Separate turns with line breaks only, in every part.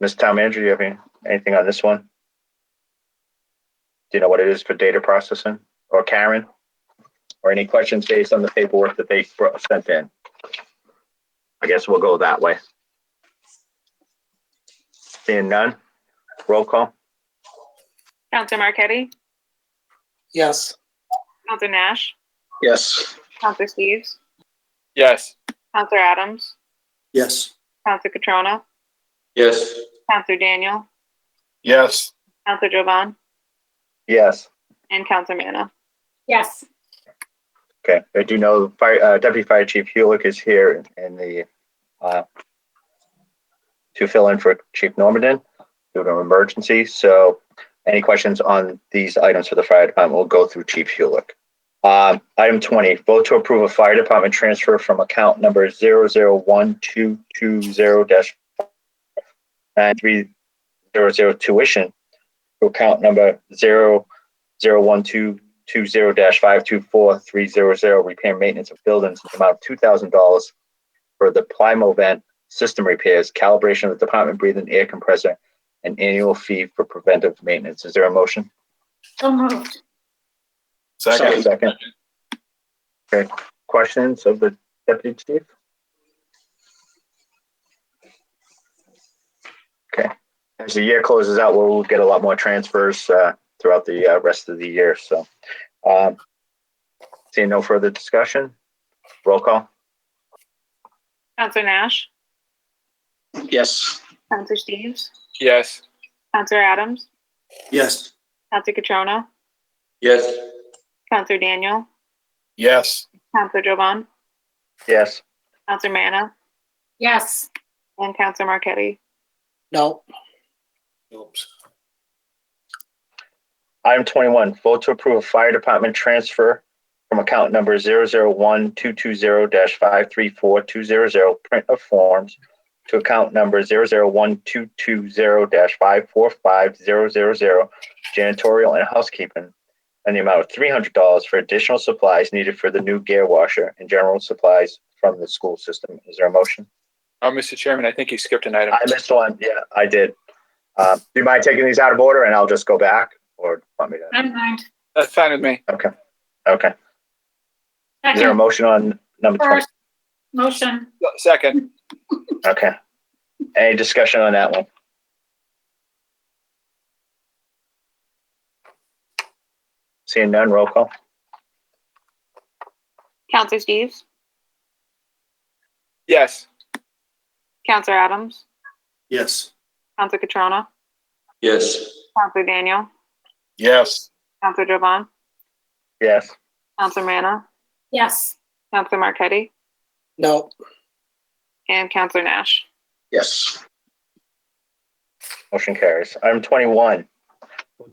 Ms. Town Manager, do you have any, anything on this one? Do you know what it is for data processing or Karen? Or any questions based on the paperwork that they bro- sent in? I guess we'll go that way. Seeing none, roll call,
Counselor Marquetti,
Yes.
Counselor Nash,
Yes.
Counselor Steves,
Yes.
Counselor Adams,
Yes.
Counselor Catrona,
Yes.
Counselor Daniel,
Yes.
Counselor Jovan,
yes.
and Counselor Manna.
Yes.
Okay, I do know Fire, uh, Deputy Fire Chief Hulick is here in the, uh, to fill in for Chief Normandin due to an emergency. So any questions on these items for the fire department will go through Chief Hulick. Um, item twenty, vote to approve a fire department transfer from account number zero zero one two two zero dash nine three zero zero tuition to account number zero zero one two two zero dash five two four three zero zero repair maintenance of buildings in the amount of two thousand dollars for the Plymo vent system repairs, calibration of the department breathing air compressor, and annual fee for preventive maintenance. Is there a motion?
So moved.
Second.
Second. Okay, questions of the deputy chief? Okay, as the year closes out, we'll get a lot more transfers uh, throughout the uh, rest of the year, so. um, Seeing no further discussion, roll call?
Counselor Nash,
Yes.
Counselor Steves,
Yes.
Counselor Adams,
Yes.
Counselor Catrona,
Yes.
Counselor Daniel,
Yes.
Counselor Jovan,
Yes.
Counselor Manna,
Yes.
and Counselor Marquetti.
No. Oops.
Item twenty-one, vote to approve a fire department transfer from account number zero zero one two two zero dash five three four two zero zero print of forms to account number zero zero one two two zero dash five four five zero zero zero janitorial and housekeeping and the amount of three hundred dollars for additional supplies needed for the new gear washer and general supplies from the school system. Is there a motion?
Uh, Mr. Chairman, I think you skipped an item.
I missed one. Yeah, I did. Uh, do you mind taking these out of order and I'll just go back or want me to?
I don't mind.
That's fine with me.
Okay. Is there a
Second,
motion on number twenty?
first, motion.
Second.
Okay. Any discussion on that one? Seeing none, roll call?
Counselor Steves,
Yes.
Counselor Adams,
Yes.
Counselor Catrona,
Yes.
Counselor Daniel,
Yes.
Counselor Jovan,
Yes.
Counselor Manna,
Yes.
Counselor Marquetti,
No.
and Counselor Nash.
Yes.
Motion carries. Item twenty-one,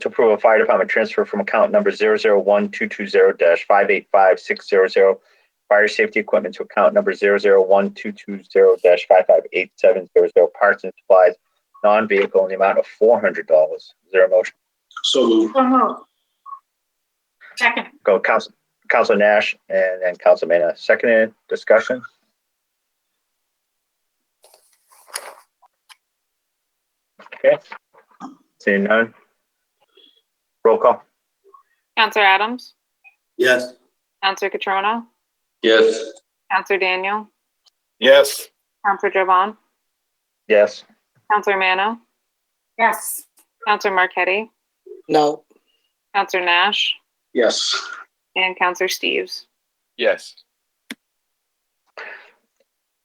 to approve a fire department transfer from account number zero zero one two two zero dash five eight five six zero zero fire safety equipment to account number zero zero one two two zero dash five five eight seven zero zero parts and supplies, non-vehicle in the amount of four hundred dollars. Is there a motion?
So moved.
So moved. Second,
go Council, Council Nash and then Council Mena. Seconded, discussion? Okay. Seeing none. Roll call?
Counselor Adams,
Yes.
Counselor Catrona,
Yes.
Counselor Daniel,
Yes.
Counselor Jovan,
Yes.
Counselor Manna,
yes.
Counselor Marquetti,
No.
Counselor Nash,
Yes.
and Counselor Steves.
Yes.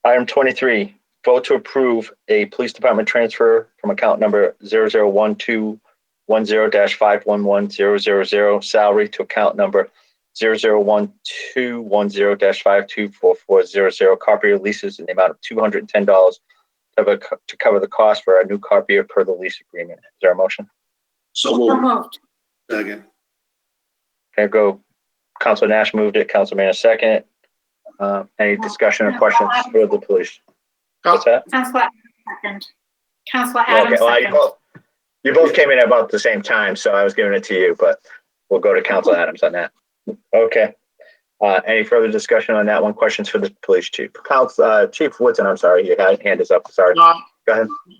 Item twenty-three, vote to approve a police department transfer from account number zero zero one two one zero dash five one one zero zero zero salary to account number zero zero one two one zero dash five two four four zero zero copier leases in the amount of two hundred and ten dollars to cover the cost for our new copier per the lease agreement. Is there a motion?
So
So moved.
Second.
Okay, go. Council Nash moved it, Council Manna second. Uh, any discussion or questions for the police? What's that?
Counselor Adams, second. Counselor
Okay,
Adams,
well, you
second.
both, you both came in about the same time, so I was giving it to you, but we'll go to Council Adams on that. Okay. Uh, any further discussion on that one? Questions for the police chief? Council, uh, Chief Woodson, I'm sorry, your hand is up, sorry.
No,
Go ahead.